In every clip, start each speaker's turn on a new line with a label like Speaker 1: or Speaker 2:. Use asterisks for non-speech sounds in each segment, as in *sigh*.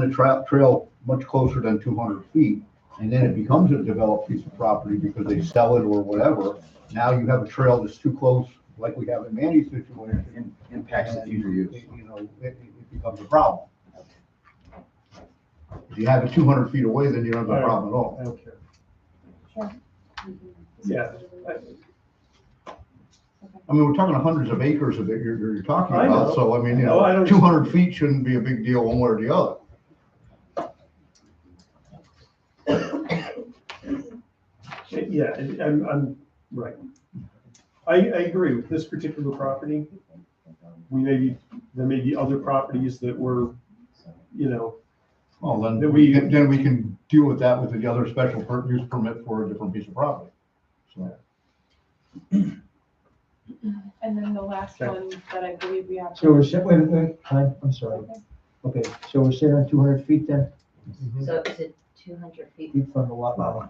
Speaker 1: the tra- trail much closer than two hundred feet, and then it becomes a developed piece of property because they sell it or whatever. Now you have a trail that's too close, like we have in Manny's situation.
Speaker 2: Im- Impacts the future
Speaker 1: and,
Speaker 2: use.
Speaker 1: You know, it, it becomes a problem. If you have it two hundred feet away, then you don't have a problem at all.
Speaker 3: I don't care.
Speaker 4: Yeah.
Speaker 1: I mean, we're talking hundreds of acres that you're, you're talking
Speaker 3: I
Speaker 1: about,
Speaker 3: know.
Speaker 1: so I mean, you
Speaker 3: No, I
Speaker 1: know,
Speaker 3: don't-
Speaker 1: two hundred feet shouldn't be a big deal one way or the other.
Speaker 3: Yeah, I- I'm, I'm, right. I, I agree with this particular property. We may be, there may be other properties that were, you know,
Speaker 1: Well, then,
Speaker 3: That
Speaker 1: we
Speaker 3: we-
Speaker 1: then we can deal with that with the other special per- use permit for a different piece of property. So,
Speaker 5: And then the last
Speaker 3: Okay.
Speaker 5: one that I believe we have.
Speaker 4: So we're, sit- wait, wait, wait, time, I'm sorry.
Speaker 5: Okay.
Speaker 4: Okay, so we're sitting on two hundred feet then,
Speaker 6: So is it two hundred feet?
Speaker 4: feet from the lot line.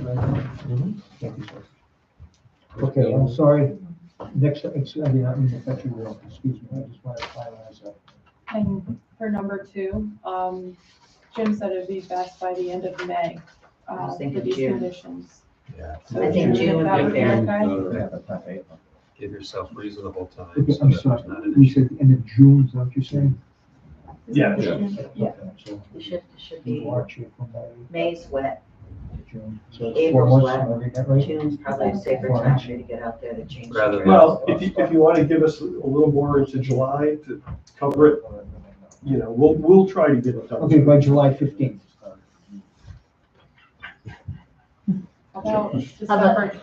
Speaker 4: Thank you, sir. Okay, I'm sorry. Next, ex- I did not mean to cut you off, excuse me, I just wanted to finalize that.
Speaker 5: And for number two, um, Jim said it'd be best by the end of May,
Speaker 6: I
Speaker 5: uh,
Speaker 6: was
Speaker 5: for
Speaker 6: thinking
Speaker 5: these
Speaker 6: June.
Speaker 5: conditions. So
Speaker 6: I think June
Speaker 5: that
Speaker 6: would
Speaker 5: would
Speaker 6: be
Speaker 5: be
Speaker 6: fair.
Speaker 5: okay?
Speaker 2: Yeah, that's not fair.
Speaker 7: Give yourself reasonable time.
Speaker 4: Okay,
Speaker 7: so
Speaker 4: I'm
Speaker 7: that
Speaker 4: sorry,
Speaker 7: there's not an
Speaker 4: we
Speaker 7: issue.
Speaker 4: said end of June, is that what you're saying?
Speaker 3: Yeah.
Speaker 5: Yeah.
Speaker 4: Okay, So
Speaker 6: It should, it should
Speaker 4: we
Speaker 6: be,
Speaker 4: watch it from May
Speaker 6: May's wet,
Speaker 4: to June. So it's four
Speaker 6: April's
Speaker 4: months
Speaker 6: wet.
Speaker 4: from every, that right?
Speaker 6: June's probably a safer time for you to get out there to change. the
Speaker 7: Rather than-
Speaker 6: trails.
Speaker 3: Well, if you, if you want to give us a little more into July to cover it, you know, we'll, we'll try to get it done.
Speaker 4: Okay, by July fifteenth.
Speaker 5: About
Speaker 6: about-
Speaker 5: December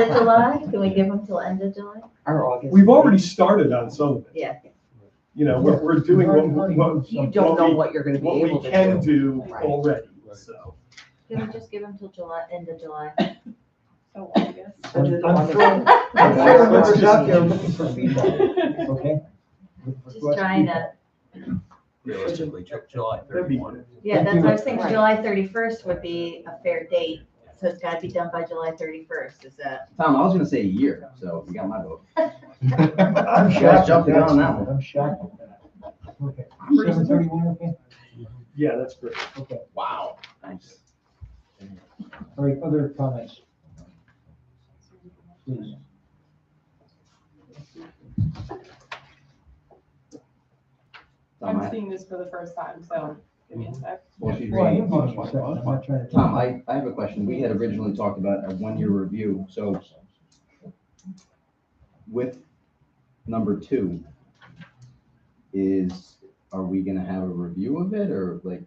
Speaker 5: twenty.
Speaker 6: of July, maybe, end of July? Can we give them till end of July?
Speaker 3: We've already started on some of it.
Speaker 6: Yeah.
Speaker 3: You know, we're, we're doing what, what,
Speaker 8: You don't know what you're gonna be
Speaker 3: what
Speaker 8: able
Speaker 3: we
Speaker 8: to
Speaker 3: can
Speaker 8: do.
Speaker 3: do
Speaker 8: Right.
Speaker 3: already, so.
Speaker 6: Can we just give them till July, end of July?
Speaker 5: So August.
Speaker 4: I'm- I'm
Speaker 6: *laughs*
Speaker 4: throwing- I'm throwing
Speaker 8: Whatever's out
Speaker 4: numbers out there
Speaker 8: there.
Speaker 4: looking for people, okay?
Speaker 6: Just trying to,
Speaker 7: Realistically, Ju- July
Speaker 3: That'd be
Speaker 7: thirty-one.
Speaker 3: good.
Speaker 6: yeah, that's what I was thinking,
Speaker 8: Right.
Speaker 6: July thirty-first would be a fair date, so it's gotta be done by July thirty-first, is that? *laughs*
Speaker 2: Tom, I was gonna say a year, so you got my vote.
Speaker 1: *laughs*
Speaker 4: I'm
Speaker 2: Guys
Speaker 4: shocked.
Speaker 2: jumping
Speaker 4: that's-
Speaker 2: on that one.
Speaker 4: I'm shocked. at that. Okay, seven thirty-one, okay,
Speaker 3: Yeah, that's great.
Speaker 4: okay.
Speaker 2: Wow. Nice.
Speaker 4: All right, other comments? Please.
Speaker 2: Tom,
Speaker 5: I'm
Speaker 2: I,
Speaker 5: seeing this for the first time, so give me a sec.
Speaker 2: well, she's
Speaker 4: Well, I
Speaker 2: reading.
Speaker 4: am on the second, I'm not trying to-
Speaker 2: Tom, I, I have a question. We had originally talked about a one-year review, so with number two, is, are we gonna have a review of it, or like?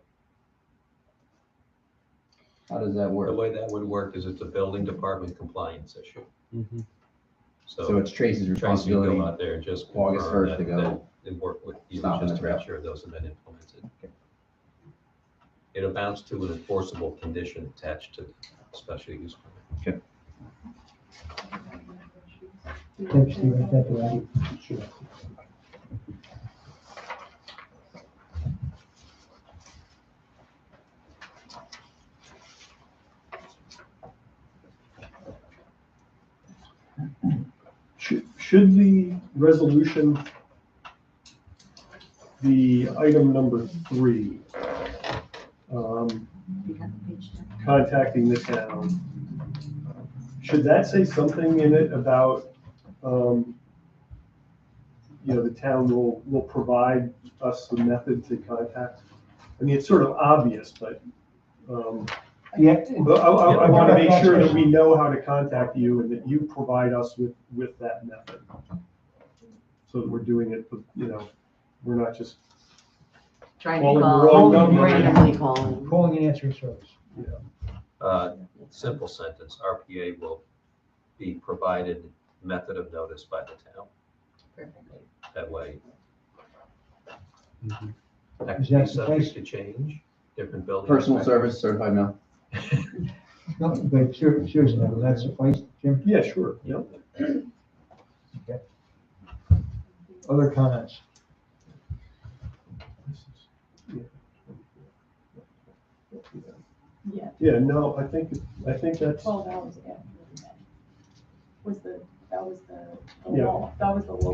Speaker 2: How does that
Speaker 7: The
Speaker 2: work?
Speaker 7: way that would work is it's a building department compliance issue.
Speaker 2: So
Speaker 7: So
Speaker 2: it's Tracy's
Speaker 7: Tracy, you
Speaker 2: responsibility.
Speaker 7: go out there and just
Speaker 2: August
Speaker 7: confirm
Speaker 2: 1st to
Speaker 7: that-
Speaker 2: go
Speaker 7: that- And work with you
Speaker 2: stop in
Speaker 7: just
Speaker 2: the
Speaker 7: to make
Speaker 2: trail.
Speaker 7: sure those have been implemented. It amounts to an enforceable condition attached to the special use permit.
Speaker 4: Thanks, Stephen, thank you, Andy.
Speaker 3: Should, should the resolution be item number three? um,
Speaker 6: You got the page down?
Speaker 3: Contacting the town. Should that say something in it about, um, you know, the town will, will provide us the method to contact? I mean, it's sort of obvious, but, um,
Speaker 4: Yeah,
Speaker 3: but I, I, I want to make sure that we know how to contact you and that you provide us with, with that method. So that we're doing it, you know, we're not just,
Speaker 8: Trying
Speaker 3: Well,
Speaker 8: to
Speaker 3: we're
Speaker 8: call,
Speaker 3: all numbered.
Speaker 8: randomly calling.
Speaker 4: calling and answering service.
Speaker 7: Uh, Simple sentence, RPA will be provided method of notice by the town.
Speaker 6: Perfect.
Speaker 7: That way.
Speaker 1: Mhm.
Speaker 7: That
Speaker 4: Is
Speaker 7: could be
Speaker 4: that the place?
Speaker 7: subject to change, different building.
Speaker 2: Personal
Speaker 7: inspector.
Speaker 2: service certified mail.
Speaker 7: *laughs*
Speaker 4: No, but ser- seriously, will that suffice, Jim?
Speaker 3: yeah, sure, yeah.
Speaker 4: Other comments?
Speaker 5: Yeah,
Speaker 3: Yeah, no, I think, I think that's,
Speaker 5: twelve hours ago. Was the, that was the, the
Speaker 3: Yeah.
Speaker 5: law, that was the law.